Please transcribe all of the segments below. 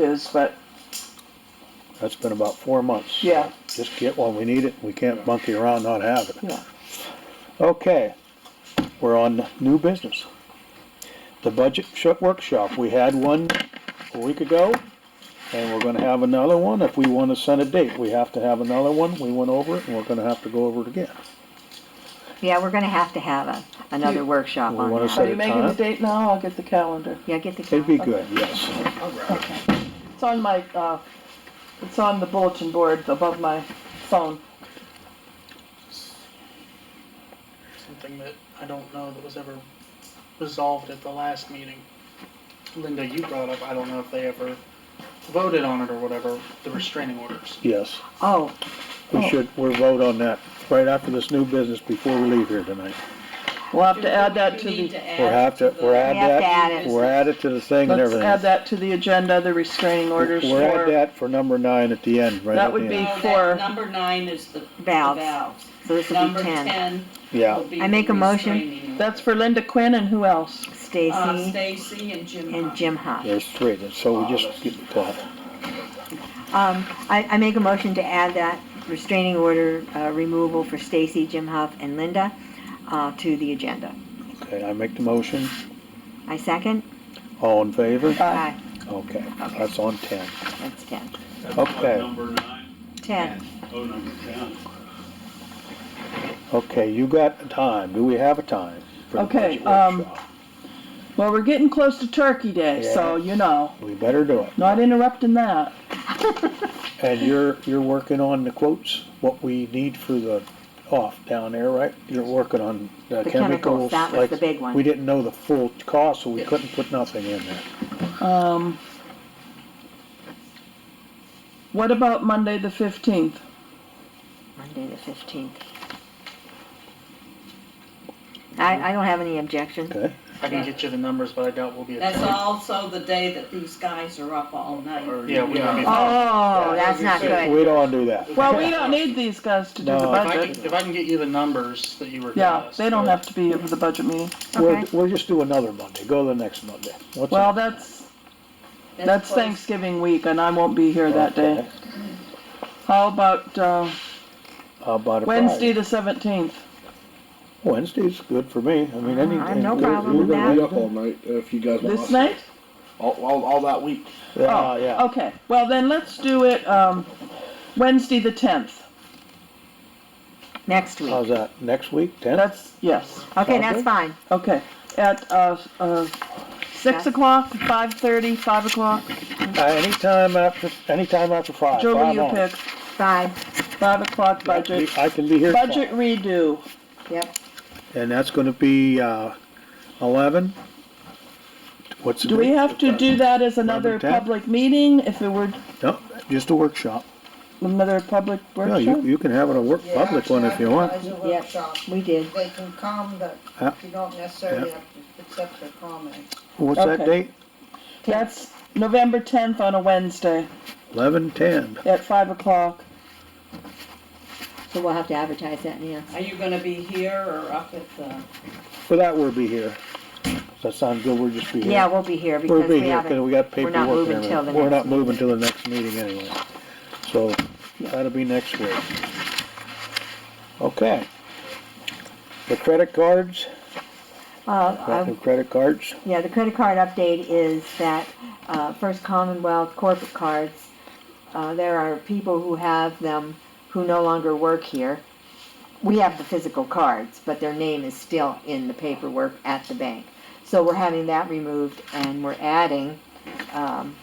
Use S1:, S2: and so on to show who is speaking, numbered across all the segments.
S1: is, but
S2: That's been about four months.
S1: yeah,
S2: Just get when we need it, we can't monkey around not have it.
S1: yeah.
S2: Okay, we're on new business. The budget sh- workshop, we had one a week ago, and we're gonna have another one. If we wanna send a date, we have to have another one. We went over it, and we're gonna have to go over it again.
S3: Yeah, we're gonna have to have a, another
S1: You-
S3: workshop
S2: We
S3: on
S2: wanna
S1: Are
S2: set
S3: that.
S2: it-
S1: you making the
S2: time?
S1: date now? I'll get the calendar.
S3: Yeah, get the.
S2: It'd be
S3: calendar.
S2: good, yes.
S1: It's on my, uh, it's on the bulletin board above my phone.
S4: something that I don't know that was ever resolved at the last meeting. Linda, you brought up, I don't know if they ever voted on it or whatever, the restraining orders.
S2: Yes,
S3: Oh,
S2: we should, we'll vote on that right after this new business before we leave here tonight.
S1: We'll have to add that to
S5: We need
S1: the,
S5: to
S2: We'll
S5: add
S2: have
S5: to
S2: to, we'll
S5: the,
S2: add
S3: We have to add
S2: that,
S3: it.
S2: we'll add it to the thing and
S1: let's
S2: everything.
S1: add that to the agenda, the restraining orders
S2: We'll add
S1: for,
S2: that for number nine at the end, right
S1: That
S2: at
S1: would
S2: the
S1: be-
S2: end.
S5: no,
S1: for-
S5: that, number nine is the the
S3: Valves.
S5: valves.
S3: so this will
S5: Number
S3: be ten.
S5: ten
S2: Yeah,
S5: will be
S3: I
S5: the
S3: make a motion.
S5: restraining
S1: that's
S5: order.
S1: for Linda Quinn and who else?
S5: Uh,
S3: Stacy
S5: Stacy and Jim.
S3: and
S5: Hunt.
S3: Jim Hunt.
S2: there's three, so we just get that.
S3: Um, I, I make a motion to add that restraining order, uh, removal for Stacy, Jim Huff, and Linda, uh, to the agenda.
S2: Okay, I make the motion.
S3: I second?
S2: All in favor?
S1: Aye.
S2: Okay, that's on ten.
S3: Aye, That's ten.
S6: That's what,
S2: Okay.
S6: Number nine,
S3: Ten.
S6: oh, number ten.
S2: Okay, you got a time. Do we have a time? for the
S1: Okay,
S2: budget
S1: um,
S2: workshop?
S1: Well, we're getting close to Turkey Day, so
S2: Yeah.
S1: you know,
S2: We better do it.
S1: not interrupting that.
S2: And you're, you're working on the quotes, what we need for the off down there, right? You're working on the
S3: The
S2: chemicals.
S3: chemicals, that was
S2: like,
S3: the big one.
S2: We didn't know the full cost, so we couldn't put nothing in there.
S1: Um, what about Monday, the fifteenth?
S3: Monday the fifteenth. I, I don't have any objection.
S2: Okay,
S4: I can get you the numbers, but I doubt we'll be. at
S5: That's
S4: the-
S5: also the day that these guys are up all night.
S4: Or, yeah, we won't be.
S2: Yeah.
S3: Oh, that's not good.
S2: we don't wanna do that.
S1: Well, we don't need these guys to do the
S2: No.
S4: If I, can-
S1: budget.
S4: if I can get you the numbers that you were. giving
S1: Yeah,
S4: us,
S1: they don't
S4: but-
S1: have to be here for the budget meeting.
S2: We'll,
S3: Okay.
S2: we'll just do another Monday. Go the next Monday. What's
S1: Well,
S2: that?
S1: that's, that's
S5: close.
S1: Thanksgiving week and I won't be here that day.
S2: Okay.
S1: How about, uh,
S2: How about a Friday?
S1: Wednesday, the seventeenth?
S2: Wednesday's good for me. I mean,
S3: Uh, I
S2: anything.
S3: have no problem
S7: We're
S3: with
S7: gonna be
S3: that.
S7: up all night if you guys want us.
S1: This night?
S7: All, all, all that week.
S1: Oh,
S2: Yeah, yeah.
S1: Okay, well then let's do it, um, Wednesday, the tenth.
S3: Next
S2: How's
S3: week.
S2: that? Next week, tenth?
S1: That's, yes,
S3: Okay,
S2: sound
S3: that's
S2: good?
S3: fine.
S1: okay. At, uh, uh, six o'clock, five thirty, five o'clock?
S2: Uh, anytime after, anytime after five.
S1: Joe, will
S2: five
S1: you
S2: on.
S1: pick?
S3: Five,
S1: Five o'clock
S2: I can
S1: budget.
S2: be- I can be here. at
S1: Budget
S2: five.
S1: redo.
S3: yep.
S2: And that's gonna be, uh, eleven? What's the
S1: Do we
S2: date?
S1: have to do that as another
S2: Eleven, ten?
S1: public meeting, if it were
S2: No, just a workshop.
S1: another public
S2: No, you,
S1: workshop?
S2: you can have it a work,
S8: Yeah,
S2: public one if you want. Uh,
S8: actually, I
S3: Yeah.
S8: advise a workshop.
S3: We did.
S8: They can come, but
S2: Yeah.
S8: you don't necessarily have to accept their comment.
S2: What's that
S1: Okay.
S2: date?
S1: That's November tenth on a Wednesday
S2: Eleven, ten.
S1: at five o'clock.
S3: So we'll have to advertise that, yeah.
S5: Are you gonna be here or up at the?
S2: For that, we'll be here. Does that sound good? We'll just be here.
S3: Yeah, we'll be here
S2: We'll
S3: because
S2: be
S3: we
S2: here, cause
S3: haven't,
S2: we got
S3: we're not
S2: paperwork and
S3: moving till the
S2: everything. We're not
S3: next
S2: moving till the next meeting anyway. So, that'll be next week. Okay. The credit cards,
S3: uh, I-
S2: the credit cards,
S3: yeah, the credit card update is that, uh, First Commonwealth corporate cards, uh, there are people who have them who no longer work here. We have the physical cards, but their name is still in the paperwork at the bank. So we're having that removed and we're adding, um,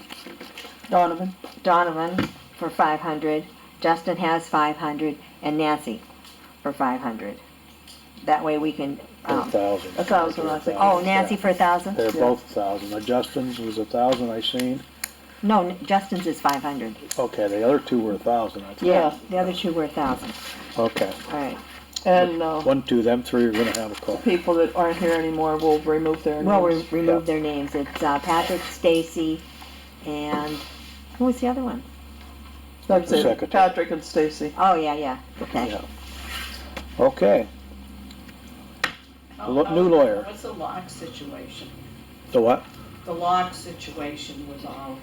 S1: Donovan,
S3: Donovan for five hundred, Justin has five hundred, and Nancy for five hundred. That way we can,
S2: a
S3: um,
S2: thousand.
S1: a thousand, I think.
S3: oh, Nancy for a thousand?
S2: They're both a thousand. The Justin's was a thousand I seen.
S3: No, N- Justin's is five hundred.
S2: Okay, the other two were a thousand, I think.
S3: Yeah, the other two were a thousand,
S2: Okay,
S3: all right.
S1: and, uh,
S2: one, two, them three are gonna have a call.
S1: people that aren't here anymore will remove their
S3: Well, we
S1: names.
S3: removed their names. It's uh, Patrick, Stacy, and who was the other one?
S1: That's
S2: The
S1: it,
S2: secretary.
S1: Patrick and Stacy.
S3: Oh, yeah, yeah, okay.
S2: Yeah. Okay, Lo- new lawyer.
S5: What's the lock situation?
S2: the what?
S5: The lock situation with all